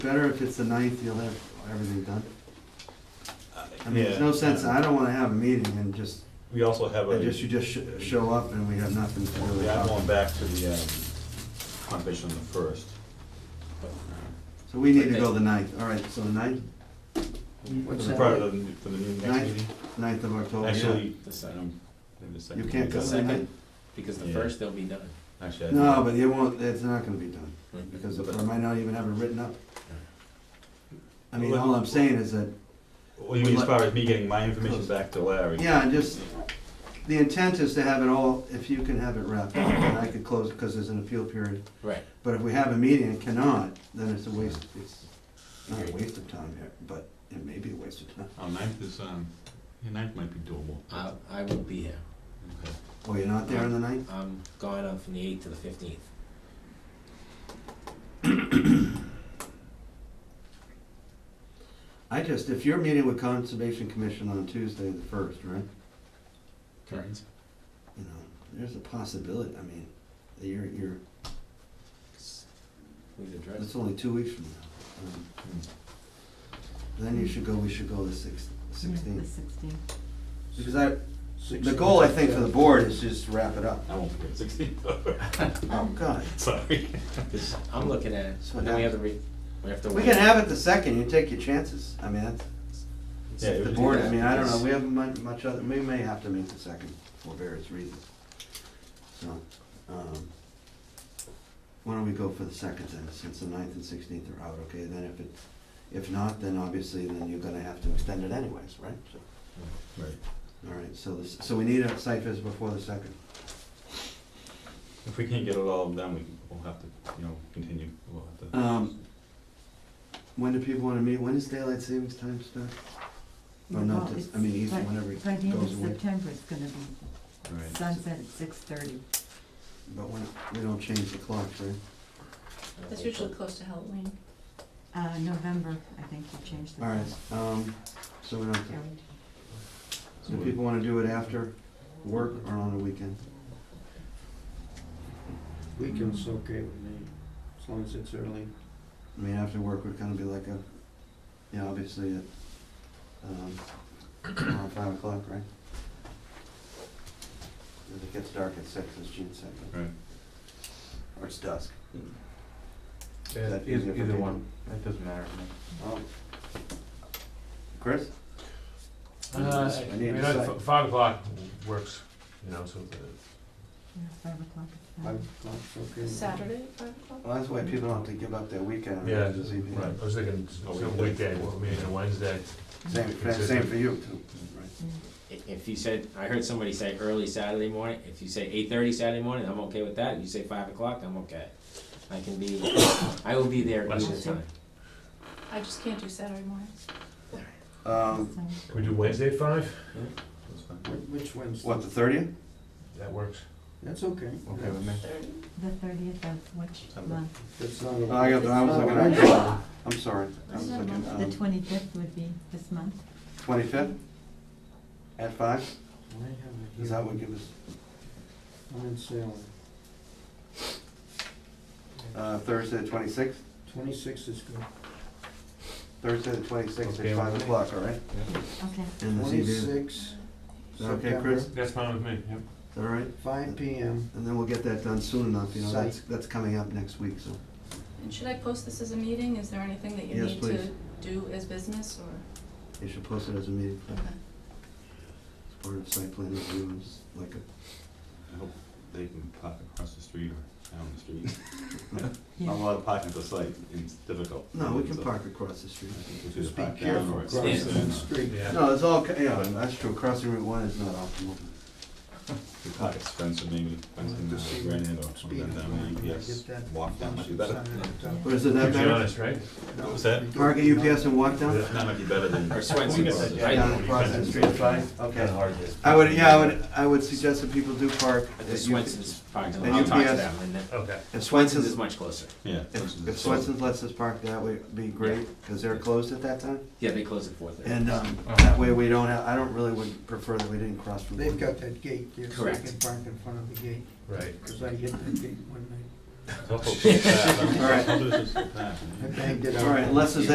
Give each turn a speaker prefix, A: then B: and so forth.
A: better if it's the ninth, you'll have everything done. I mean,
B: Yeah.
A: there's no sense, I don't wanna have a meeting and just,
B: We also have a,
A: and just, you just sh- show up and we have nothing to really
B: yeah, I'm
A: talk
B: going
A: about.
B: back to the, um, competition on the first.
A: So we need to go the ninth, all right, so the ninth,
B: For
C: What's
B: the,
C: that?
B: prior to the, for the new next
A: Ninth.
B: meeting?
A: ninth of October, oh, yeah.
B: Actually,
D: The second,
B: maybe the second.
A: You can't go
D: the
A: the
D: second?
A: ninth?
D: because the
B: Yeah.
D: first they'll be done.
B: Actually, I
A: No,
B: think-
A: but it won't, it's not gonna be done, because
D: But-
A: I might not even have it written up. I mean,
B: Well,
A: all I'm saying is that,
B: What do you mean as far as me getting my information back to Larry?
A: yeah, and just, the intent is to have it all, if you can have it wrapped up, and I could close, because there's an appeal period.
D: Right,
A: But if we have a meeting and cannot, then it's a waste, it's not a waste of time here, but it may be a waste of time.
E: Oh, ninth is, um, yeah, ninth might be doable.
F: Uh,
D: I, I will be here.
E: Okay.
A: Oh, you're not there on the ninth?
D: I'm gone on from the eighth to the fifteenth.
A: I just, if you're meeting with Conservation Commission on Tuesday the first, right?
D: Correct.
A: You know, there's a possibility, I mean, that you're, you're,
D: We've addressed.
A: it's only two weeks from now. Um,
B: Hmm.
A: Then you should go, we should go the six-
G: The
A: sixteenth.
G: sixteenth.
A: Because I, the goal, I think, for the board is just to wrap it up.
B: I won't forget sixteen,
A: Oh, God.
B: sorry.
D: This- I'm looking at it,
A: So
D: and then we
A: now-
D: have to re, we have to.
A: We can have it the second, you take your chances. I mean, that's,
B: Yeah,
A: The board, I mean, I don't know, we haven't much, much other, we may have to meet the second for various reasons. So, um, why don't we go for the second then, since the ninth and sixteenth are out, okay, then if it, if not, then obviously, then you're gonna have to extend it anyways, right? So,
B: Right.
A: All right, so this, so we need a site visit before the second.
B: If we can't get it all done, we, we'll have to, you know, continue, we'll have to.
A: Um, when do people wanna meet, when is daylight savings time start? Or
G: Well,
A: not, this- I
G: it's
A: mean,
G: by-
A: even whenever it
G: By the end of
A: goes away,
G: September, it's gonna be
B: Right.
G: sunset at six thirty.
A: but when, we don't change the clock, right?
H: That's usually close to Halloween.
G: Uh, November, I think you changed the.
A: All right, um, so we don't, so people wanna do it after work or on a weekend?
C: Weekend's okay with me, as long as it's early.
A: I mean, after work would kinda be like a, you know, obviously at, um, around five o'clock, right? If it gets dark at six, it's June second,
B: Right.
A: or it's dusk. Is
F: Yeah,
A: that
F: eith-
A: easier for
F: Either
A: people?
F: one, it doesn't matter to me.
A: Oh. Chris?
F: Uh,
A: I
F: I
A: need
F: mean,
A: to
F: I-
A: say-
F: five o'clock works, you know, so uh, the-
G: Yeah, Five o'clock. it's
C: Five
G: fine.
C: o'clock's okay. with me.
H: Saturday, at five o'clock?
A: Well, that's why people don't have to give up their weekend.
F: yeah,
A: it's just evening.
F: right, I was thinking
B: A
F: some
B: weekday.
F: weekday, maybe a Wednesday.
A: Same, same for you too, right?
D: I- If you said, I heard somebody say early Saturday morning, if you say eight thirty Saturday morning, I'm okay with that, if you say five o'clock, I'm okay. I can be, I will be there
F: Bless
D: either
G: you.
D: time.
H: I just can't do Saturday mornings.
A: Um,
G: So-
F: Can we do Wednesday at five?
B: That's fine.
C: Wh- Which Wednesday?
A: what, the thirtieth?
F: That works.
C: That's okay.
F: Okay with me.
G: The thirtieth of which
B: September.
G: month?
C: That's not a.
A: Oh, I got, I was looking at, July. I'm sorry, I was looking,
G: The
A: um,
G: twenty-fifth would be this month.
A: twenty-fifth? At five,
C: Why have I
A: is
C: here?
A: that what gives us,
C: I'm in Salem.
A: uh, Thursday the twenty-sixth?
C: Twenty-six is good.
A: Thursday the twenty-sixth at
F: Okay,
A: five
F: okay.
A: o'clock, all right?
G: Okay.
A: And the ZBA, is
C: Twenty-six,
A: that okay, Chris?
C: September,
A: Is
F: That's fine with me, yep.
A: that all right?
C: five PM.
A: And then we'll get that done soon enough, you know, that's, that's coming up next week, so.
H: And should I post this as a meeting? Is there anything that you
A: Yes,
H: need
A: please.
H: to do as business or?
A: You should post it as a meeting,
H: Okay.
A: as part of site plan review, it's like a,
B: I hope they can park across the street or down the street.
G: Yeah.
B: Not a
A: Uh-huh.
B: lot of parking at the site, it's difficult.
A: no, we can
B: So,
A: park across the street.
B: I think we should
C: Just be
B: park down
C: careful
B: or
C: crossing
B: it's-
C: the street.
F: Yeah,
A: No, it's all, ca- yeah, that's true, crossing Route one is not optimal.
B: We park at Spencer maybe, Spencer and
C: Just see
B: uh, Granite or something
C: Speed.
B: down there, UPS,
C: Get that.
B: walk down, might be better.
A: Or is it that
F: keeps you
A: better?
F: honest, right?
B: What was that?
A: Park at UPS and walk down?
B: That might be better than.
D: Or Swenson
B: We can
D: Brothers,
B: sit
D: right?
A: Down across the street, fine, okay.
F: hard
A: I would, yeah, I would, I would suggest that people do park.
D: But
A: at
D: the
A: UP
D: Swenson's parking
A: and
D: lot, I'll talk to
A: UPS
D: them, and then,
F: Okay.
A: If
D: Swenson's is
A: Swenson's,
D: much closer.
B: Yeah.
A: if if Swenson's lets us park that way, it'd be great, because they're closed at that time.
D: Yeah, they close at four thirty.
A: And, um, that way we don't have, I don't really would prefer that we didn't cross from.
C: They've got that gate there, so you
D: Correct.
C: can park in front of the gate,
F: Right.
C: because I hit that gate one night.
B: I'll put it in the past.
A: All right.
B: I'll put it in the past.
A: All right, unless there's